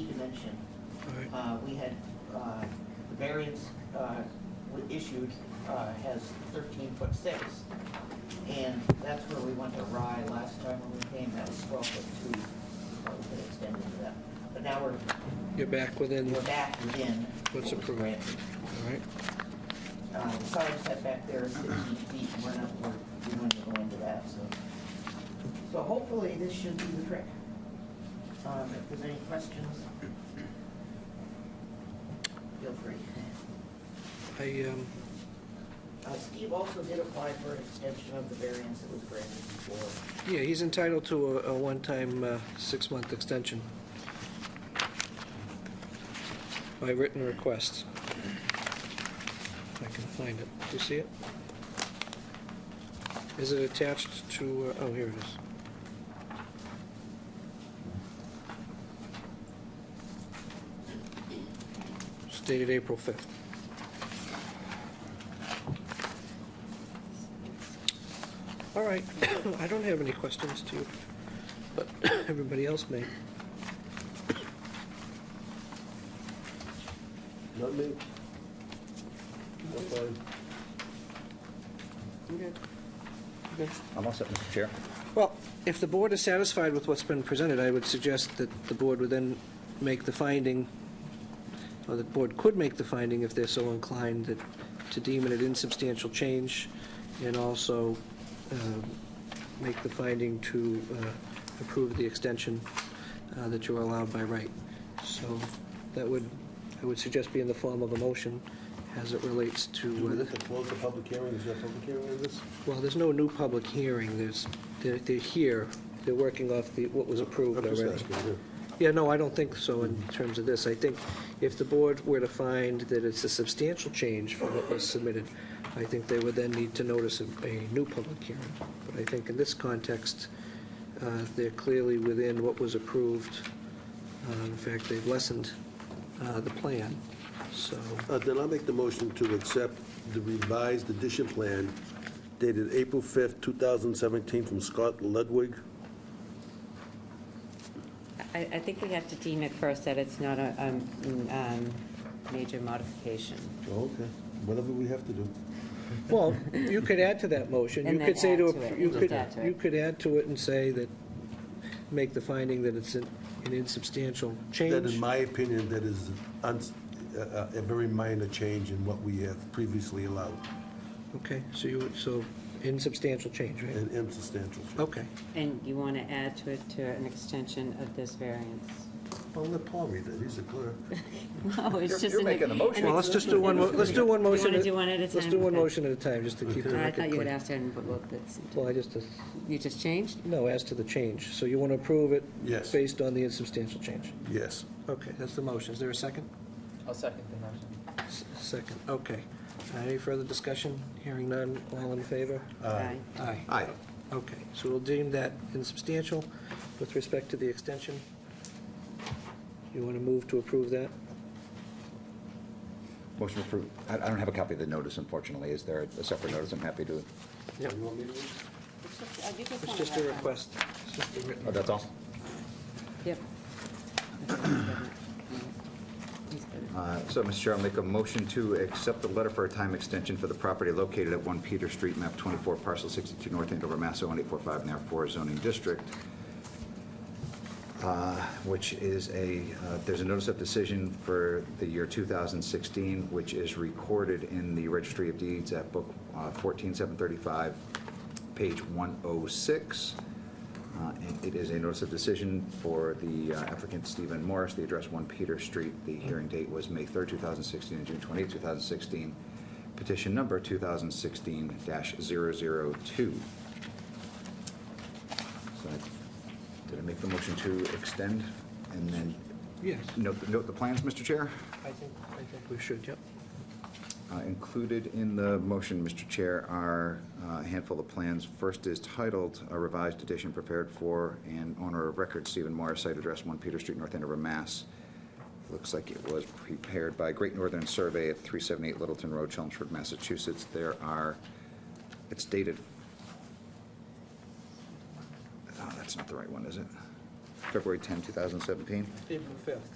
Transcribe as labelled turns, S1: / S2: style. S1: extension.
S2: Right.
S1: Uh, We had, uh, the variance uh, we issued uh, has thirteen foot six. And that's where we went awry last time when we came, that was twelve foot two, uh, we could extend into that. But now we're,
S2: You're back within,
S1: we're
S2: all
S1: back within.
S2: What's
S1: what was
S2: approved.
S1: granted.
S2: right?
S1: Uh, The side setback there is fifteen feet, and we're not, we're, we wouldn't go into that, so. So hopefully this should do the trick. Um, If there's any questions, feel free.
S2: I, um,
S1: Uh, Steve also did apply for an extension of the variance that was granted before.
S2: yeah, he's entitled to a, a one-time, uh, six-month extension by written request. If I can find it. Do you see it? Is it attached to, uh, oh, here it is. It's dated April 5th. All right, I don't have any questions to you, but everybody else may.
S3: Not me. Not fine.
S4: I'm all set, Mr. Chair.
S2: Well, if the board is satisfied with what's been presented, I would suggest that the board would then make the finding, or the board could make the finding if they're so inclined, that to deem it an insubstantial change, and also um, make the finding to uh, approve the extension uh, that you are allowed by right. So that would, I would suggest be in the form of a motion as it relates
S3: Do we
S2: to,
S3: have
S2: uh,
S3: to close the public hearing? Is there a public hearing on this?
S2: well, there's no new public hearing, there's, they're they're here, they're working off the, what was approved
S3: I'm
S2: already.
S3: just asking, yeah.
S2: Yeah, no, I don't think so in terms of this. I think if the board were to find that it's a substantial change from what was submitted, I think they would then need to notice a, a new public hearing. But I think in this context, uh, they're clearly within what was approved. Uh, In fact, they've lessened uh, the plan, so,
S3: Uh, Then I'll make the motion to accept the revised edition plan dated April 5th, 2017, from Scott Ludwig.
S5: I, I think we have to deem it first that it's not a, um, um, major modification.
S3: Oh, Okay, whatever we have to do.
S2: well, you could add to that motion.
S5: And
S2: You
S5: then
S2: could say
S5: add
S2: to,
S5: to it.
S2: you
S5: Just
S2: could,
S5: add to it.
S2: you could add to it and say that, make the finding that it's an an insubstantial change.
S3: That, in my opinion, that is uns- a a- a very minor change in what we have previously allowed,
S2: Okay, so you, so insubstantial change, right?
S3: and insubstantial. change.
S2: Okay.
S5: And you want to add to it to an extension of this variance?
S3: Well, let Paul read it, he's a clerk.
S5: No, it's
S4: You're-
S5: just
S4: you're
S5: an-
S4: making the
S5: an
S4: motion.
S2: Well, let's just do one, mo- let's do one
S5: You wanna
S2: motion.
S5: do one at a
S2: Let's
S5: time?
S2: do one
S5: Okay.
S2: motion at a time, just to keep the
S5: I
S2: record
S5: thought you would
S2: clear.
S5: ask him, but look, that's,
S2: Well, I just, uh,
S5: you just changed?
S2: no, as to the change. So you want to approve it?
S3: Yes.
S2: Based on the insubstantial change?
S3: Yes.
S2: Okay, that's the motion. Is there a second?
S6: I'll second the motion.
S2: S- Second, okay. Uh, Any further discussion? Hearing none, all in favor?
S5: Aye.
S2: Aye.
S3: Aye.
S2: Okay, so we'll deem that insubstantial with respect to the extension. You want to move to approve that?
S4: Motion approved. I I don't have a copy of the notice, unfortunately. Is there a separate notice? I'm happy to,
S2: Yeah.
S3: You want me to read?
S2: It's just a request. It's just a written
S4: oh, that's all?
S5: Yep.
S4: Uh, So, Mr. Chair, I'll make a motion to accept the letter for a time extension for the property located at 1 Peter Street, map 24, parcel 62, North Andover, Mass. 01845, now 4 zoning district, uh, which is a, uh, there's a notice of decision for the year 2016, which is recorded in the Registry of Deeds at book uh, 14735, page 106. Uh, and It is a notice of decision for the uh, applicant Stephen Morris, the address 1 Peter Street. The hearing date was May 3rd, 2016, and June 28th, 2016. Petition number 2016-002. So I- Did I make the motion to extend and then
S2: Yes,
S4: note the- note the plans, Mr. Chair?
S2: I think, I think we should, yep.
S4: Uh, Included in the motion, Mr. Chair, are uh, a handful of plans. First is titled "A Revised Edition Prepared for and Owner of Record Stephen Morris, Site Address 1 Peter Street, North Andover, Mass." Looks like it was prepared by Great Northern Survey at 378 Littleton Road, Chelmsford, Massachusetts. There are, it's dated, oh, that's not the right one, is it? February 10, 2017?
S2: April 5th.